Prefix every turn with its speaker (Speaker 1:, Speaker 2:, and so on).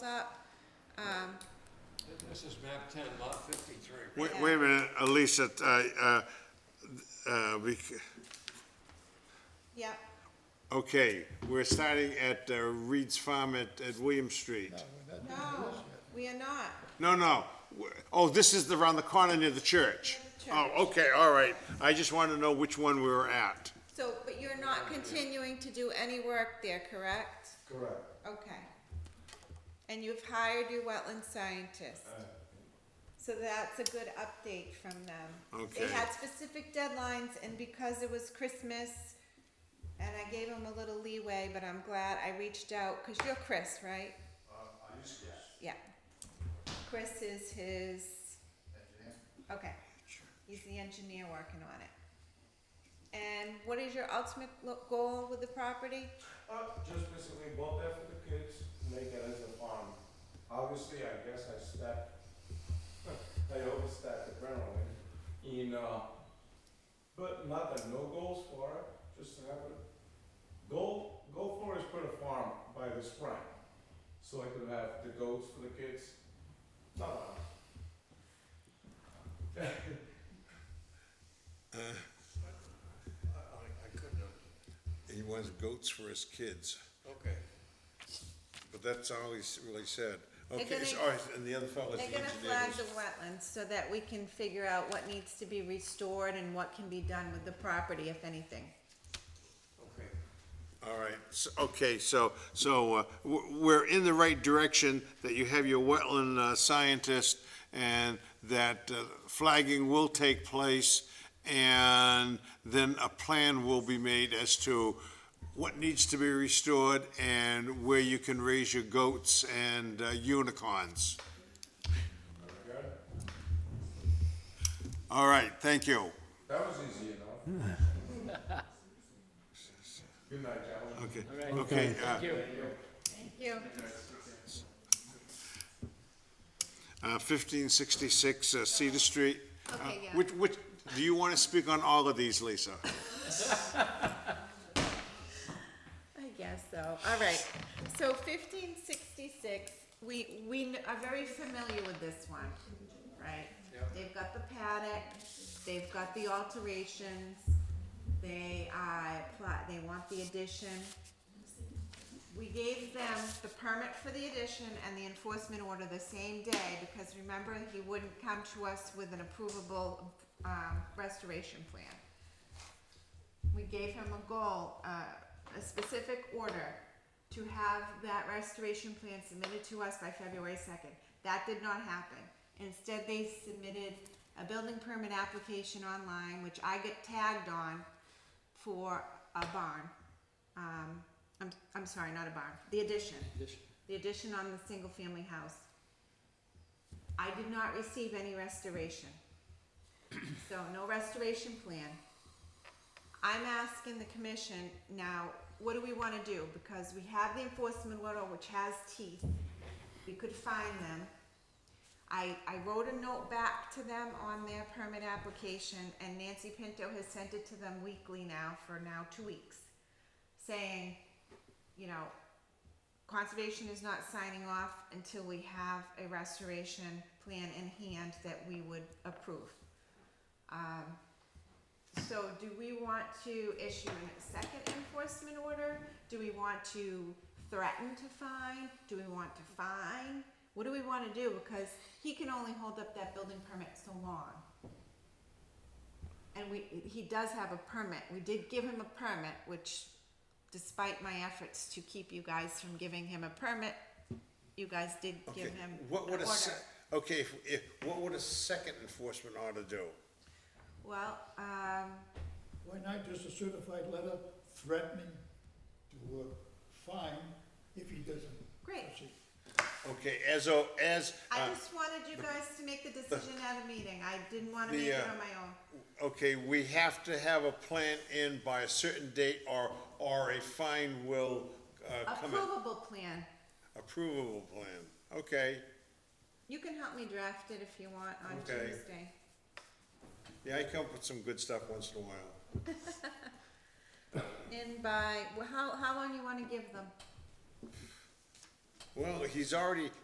Speaker 1: up, um,
Speaker 2: This is map ten, lot fifty-three.
Speaker 3: Wait, wait a minute, Alicia, uh, uh, uh, we, c-
Speaker 1: yep,
Speaker 3: okay, we're starting at uh, Reed's Farm at, at William Street.
Speaker 1: no, we are not.
Speaker 3: No, no, w- oh, this is the- around the corner near the church. Oh, okay, all right, I just want to know which one we were at.
Speaker 1: So, but you're not continuing to do any work there, correct?
Speaker 4: Correct.
Speaker 1: Okay. And you've hired your wetland scientist? So that's a good update from them.
Speaker 3: Okay.
Speaker 1: They had specific deadlines, and because it was Christmas, and I gave them a little leeway, but I'm glad I reached out, because you're Chris, right? Yeah. Chris is his. Engineer? Okay. He's the engineer working on it. And what is your ultimate lo- goal with the property?
Speaker 4: Uh, just basically bought that for the kids, make it as a farm. Obviously, I guess I stepped, I overstepped the boundary. In, uh, but not that no goals for it, just to have it. Goal, goal for is put a farm by the spring, so I could have the goats for the kids. No, no.
Speaker 2: I couldn't have.
Speaker 3: He wants goats for his kids,
Speaker 2: Okay.
Speaker 3: but that's all he's really said.
Speaker 1: Okay, They're gonna- so-
Speaker 3: and the other fellow's
Speaker 1: They're gonna flag the wetlands so that we can figure out what needs to be restored and what can be done with the property, if anything.
Speaker 2: Okay.
Speaker 3: All right, s- okay, so, so uh, w- we're in the right direction, that you have your wetland uh, scientist, and that uh, flagging will take place, and then a plan will be made as to what needs to be restored and where you can raise your goats and uh, unicorns. All right, thank you.
Speaker 4: That was easy enough. Good night, gentlemen.
Speaker 3: Okay, okay. uh,
Speaker 1: Thank you.
Speaker 3: Uh, 1566 uh, Cedar Street. Uh,
Speaker 1: Okay, yeah.
Speaker 3: Which, which, do you want to speak on all of these, Lisa?
Speaker 1: I guess so. All right. So fifteen sixty-six, we, we kn- are very familiar with this one, right? They've got the paddock, they've got the alterations, they, uh, apply, they want the addition. We gave them the permit for the addition and the enforcement order the same day, because remember, he wouldn't come to us with an approvable, um, restoration plan we gave him a goal, uh, a specific order to have that restoration plan submitted to us by February second. That did not happen. Instead, they submitted a building permit application online, which I get tagged on for a barn. Um, I'm, I'm sorry, not a barn, the addition. The addition on the single-family house. I did not receive any restoration. So no restoration plan. I'm asking the commission now, what do we wanna do? Because we have the enforcement order, which has teeth, we could fine them. I, I wrote a note back to them on their permit application, and Nancy Pinto has sent it to them weekly now for now two weeks, saying, you know, conservation is not signing off until we have a restoration plan in hand that we would approve. Um, So do we want to issue a second enforcement order? Do we want to threaten to fine? Do we want to fine? What do we want to do? Because he can only hold up that building permit so long. And we, he does have a permit. We did give him a permit, which despite my efforts to keep you guys from giving him a permit, you guys did give
Speaker 3: Okay,
Speaker 1: him an
Speaker 3: what would
Speaker 1: order.
Speaker 3: a se- Okay, if, if, what would a second enforcement order do?
Speaker 1: Well, um,
Speaker 5: Why not just a certified letter threatening to uh, fine if he doesn't?
Speaker 1: Great.
Speaker 5: proceed?
Speaker 3: Okay, as, o- as,
Speaker 1: I
Speaker 3: uh,
Speaker 1: just wanted you guys to make the decision at a meeting. I didn't want to
Speaker 3: the,
Speaker 1: make it
Speaker 3: uh,
Speaker 1: on my own.
Speaker 3: okay, we have to have a plan in by a certain date or, or a fine will
Speaker 1: A
Speaker 3: uh, come in.
Speaker 1: provable plan.
Speaker 3: Approvable plan, okay.
Speaker 1: You can help me draft it if you want on
Speaker 3: Okay.
Speaker 1: Tuesday.
Speaker 3: Yeah, I come up with some good stuff once in a while.
Speaker 1: In by, well, how, how long you want to give them?
Speaker 3: Well, he's already,